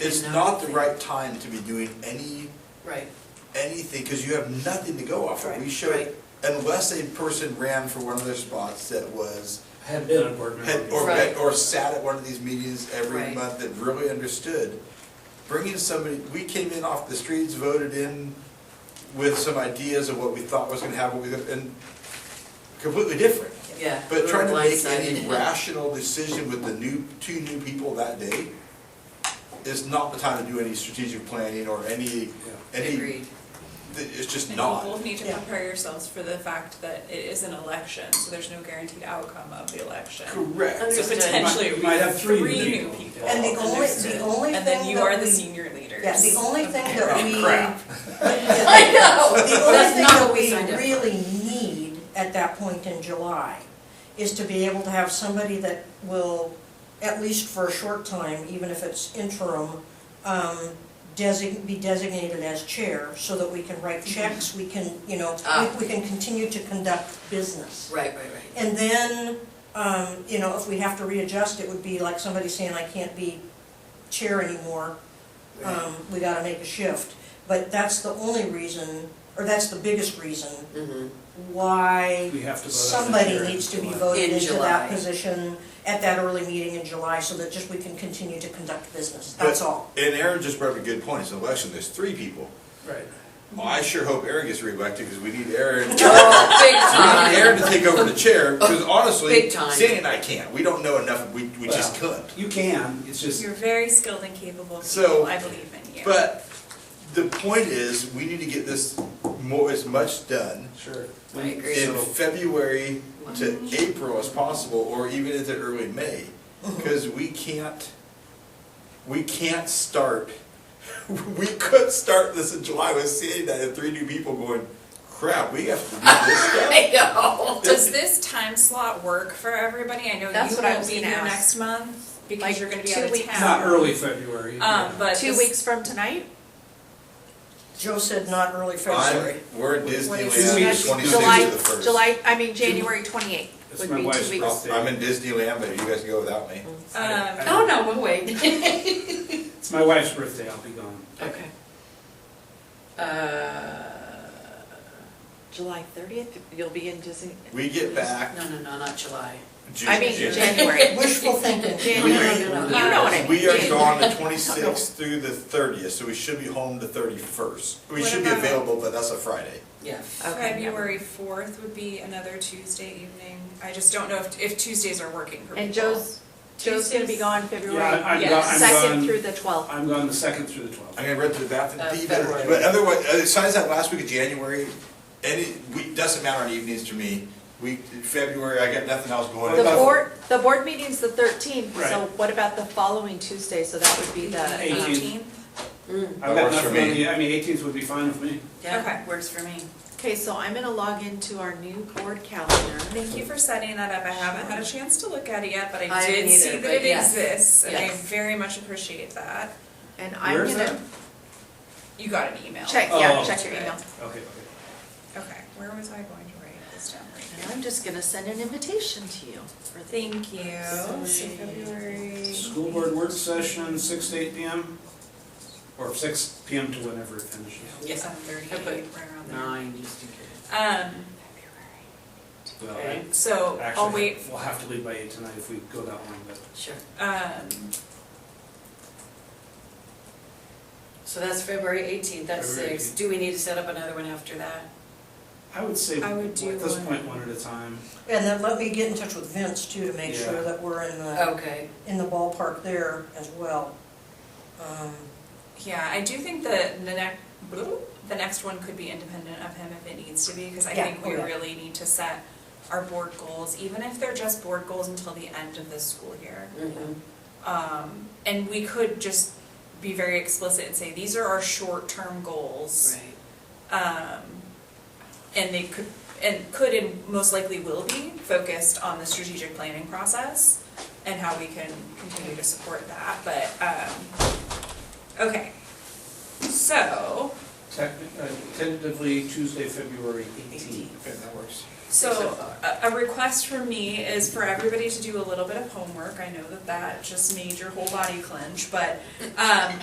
It's And not the nothing. right time to be doing any, Right, anything, because you have nothing to go off of. We Right, should, right. unless a person ran for one of their spots that was, Had been a board member. had, or, before. had- or sat at one of these meetings every Right. month that really understood. Bringing somebody, we came in off the streets, voted in with some ideas of what we thought was gonna happen, we- and completely different. yeah. But we're trying to make any blindsided. rational decision with the new, two new people that day is not the time to do any strategic planning or any, any, th- Agreed, it's just And not. you both need to Yeah. prepare yourselves for the fact that it is an election, so there's no guaranteed outcome of the election. Correct. So Understood. potentially it You would might have be three three new new people. people. And the only- the Understood. only And then thing you that are the we- senior leaders. Yeah, the only thing that we. Oh, crap. I know. The That's only thing not what that we we signed up for. really need at that point in July is to be able to have somebody that will, at least for a short time, even if it's interim, um, design, be designated as chair, so that we can write checks, we can, you know, Mm-hmm. Ah. we, we can continue to conduct business. right, right, right. And then, um, you know, if we have to readjust, it would be like somebody saying, I can't be chair anymore, um, we gotta make a shift. But that's the only reason, or that's the biggest reason Mm-hmm. why We have to vote on it somebody here in needs to be July. voted In into that July. position at that early meeting in July, so that just we can continue to conduct business, that's But- all. And Aaron just brought up a good point, it's an election, there's three people. Right. Well, I sure hope Aaron gets reelected, because we need Aaron, we need Oh, big time. Aaron to take over the chair, because honestly, Big time. Sandy and I can't, we don't know enough, we, we just Well, couldn't. You can, it's just, You're very skilled and capable So, people, I believe in you. But the point is, we need to get this more, as much done sure. I agree. in So, February to April as possible, or even into early May, because we can't, we can't start, we could start this in July with seeing that and three new people going, crap, we have to do this stuff. I know. Does this time slot work for everybody? I know That's you what I won't was be here gonna ask. next month because Like you're gonna be two out of weeks. not town. early February. Um, but Two this- weeks from tonight? Joe said not early February. I'm, we're in What Disneyland is it? the July, twenty-sixth to the first. July, I mean, January twenty-eighth It's would my be wife's two weeks. birthday. I'm in Disneyland, but you guys can go without me. Um, Oh, no, we'll wait. It's my wife's birthday, I'll be gone. Okay. Uh, July thirtieth, you'll be in Disney. We get back no, no, no, not July. June. I mean, June. January. Wishful thinking. Jan- no, no, no, no, no. You know what I mean. We are Jan- gone the twenty-sixth through the thirtieth, so we should be home the thirty-first. We What should be about- available, but that's a Friday. Yeah. Okay, yeah. February fourth would be another Tuesday evening. I just don't know if, if Tuesdays are working for people. And Joe's, Joe's gonna be gone Yeah, February I'm gone, yes. I'm second gone- through the twelfth. I'm gone the second through the twelfth. I'm gonna run to the bathroom, Uh, Be better. February. but otherwise, uh, besides that last week of January, any, we, doesn't matter on evenings to me. We, February, I got nothing else going. The on. board, the board meeting's the thirteenth, so Right. what about the following Tuesday, so that would be um, the, um, Eighteenth. Eighteenth? Mm, That I've got works for nothing on me. the, I mean, eighteenth would be fine with me. Yeah, Okay, works for me. okay, so I'm gonna log into our new board calendar. Thank you for setting that up. I haven't had a chance to look at it yet, but I I did haven't see either, that but it yes, exists, and I yes. very much appreciate that. And I'm Where's gonna You got an email. check, Oh. yeah, check your email. Okay, okay. Okay, where was I going to write this down right And I'm just gonna send an invitation to you for the Thank you. So Sorry. February. School board work session, six to eight PM, or six PM to whenever it finishes. Yes. Seven thirty, I right put around there. nine, just in case. Um, Well, I- Okay. so I'll Actually, wait, we'll have to leave by eight tonight if we go that long, but. Sure. um, So that's February eighteenth, that's February six. 18th. Do we need to set up another one after that? I would say, I would at do this one- point, one at a time. And then let me get in touch with Vince too, to make Yeah. sure that we're in the. Okay. in the ballpark there as well. Um, yeah, I do think that the next, the next one could be independent of him if it needs to be, because I Yeah, think we oh, yeah. really need to set our board goals, even if they're just board goals until the end of this school year. Mhm. Um, and we could just be very explicit and say, these are our short-term goals. Right. um, and they could, and could and most likely will be focused on the strategic planning process and how we can continue to support that, but, um, okay. So, Techni- uh, Tentatively Tuesday, February eighteenth. Eighteenth. Okay, that works. Six so o'clock. a, a request from me is for everybody to do a little bit of homework. I know that that just made your whole body clench, but, um,